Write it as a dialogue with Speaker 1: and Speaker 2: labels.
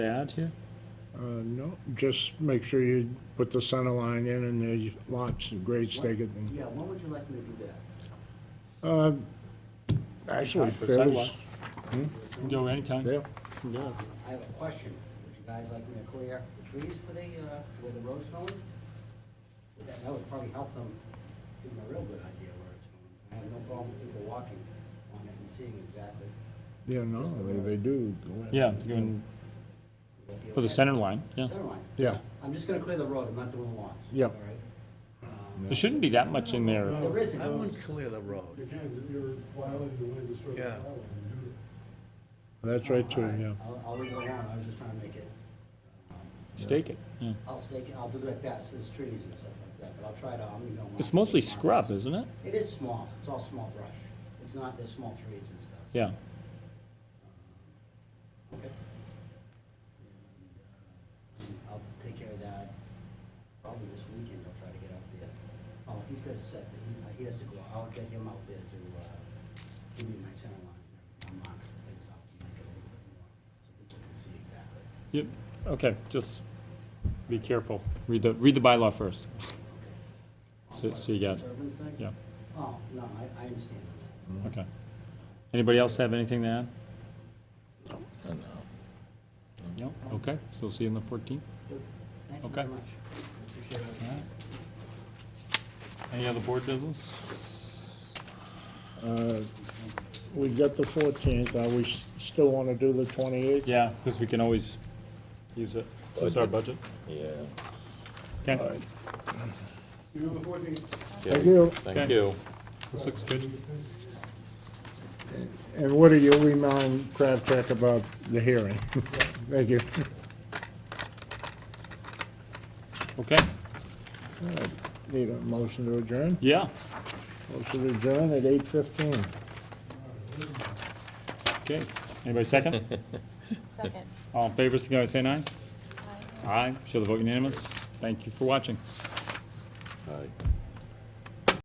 Speaker 1: Add here?
Speaker 2: Uh, no, just make sure you put the center line in and the lots and grades taken.
Speaker 3: Yeah, when would you like me to do that?
Speaker 2: Actually,
Speaker 1: Time for
Speaker 2: fairly,
Speaker 1: sidewalk. Can Do it anytime.
Speaker 2: yeah,
Speaker 1: Can do it.
Speaker 3: I have a question. Would you guys like me to clear the trees for the, uh, where the road's going? Would That, that would probably help them give them a real good idea where it's going. I have no problem with people walking on it and seeing exactly.
Speaker 2: yeah, no, they, they do. go in.
Speaker 1: Yeah, you can-
Speaker 3: what
Speaker 1: for the
Speaker 3: effect-
Speaker 1: center line, yeah.
Speaker 3: Center line.
Speaker 2: Yeah,
Speaker 3: I'm just gonna clear the road, I'm not doing lawns.
Speaker 2: Yep.
Speaker 3: All right?
Speaker 1: There shouldn't be that much in there.
Speaker 3: There is,
Speaker 4: I
Speaker 3: no-
Speaker 4: wouldn't clear the road.
Speaker 5: Again, you're violating the way the sort
Speaker 4: Yeah.
Speaker 5: of bylaw and you-
Speaker 2: that's right too, yeah.
Speaker 3: I'll, I'll leave it alone, I was just trying to make it,
Speaker 1: Stake it, yeah.
Speaker 3: I'll stake, it- I'll do like that, so there's trees and stuff like that, but I'll try to, um, I'm gonna.
Speaker 1: It's mostly scrub, isn't it?
Speaker 3: It is small, it's all small brush. It's not, there's small trees and stuff.
Speaker 1: Yeah.
Speaker 3: Okay. And, uh, I'll take care of that. Probably this weekend I'll try to get out there. Oh, he's got a set, that he, uh, he has to go, I'll get him out there to, uh, give me my center lines and I'll mark things out and make it a little bit more, so people can see exactly.
Speaker 1: Yep, okay, just be careful. Read the, read the bylaw first.
Speaker 3: Okay.
Speaker 1: So- so you got-
Speaker 3: Turbines thing?
Speaker 1: Yeah,
Speaker 3: Oh, no, I, I understand that.
Speaker 1: okay. Anybody else have anything to add? No, okay, so see you on the fourteenth.
Speaker 3: Good. Thank you very
Speaker 1: Okay.
Speaker 3: much. Appreciate it.
Speaker 1: Any other board business?
Speaker 2: Uh, We got the fourteenth, are we s- still wanna do the twenty-eighth?
Speaker 1: Yeah, because we can always use it. Is this our budget?
Speaker 6: Yeah.
Speaker 1: Okay,
Speaker 5: You know, the fourteenth
Speaker 2: Thank you,
Speaker 6: Thank
Speaker 1: Okay.
Speaker 6: you.
Speaker 1: this looks good.
Speaker 2: and Woody, you remind Crabcheck about the hearing. Thank you.
Speaker 1: Okay,
Speaker 2: Need a motion to adjourn?
Speaker 1: yeah,
Speaker 2: Motion to adjourn at eight fifteen.
Speaker 1: okay. Anybody second?
Speaker 7: Second.
Speaker 1: All in favor, signify by saying aye. Aye, show the vote unanimous. Thank you for watching.
Speaker 6: Bye.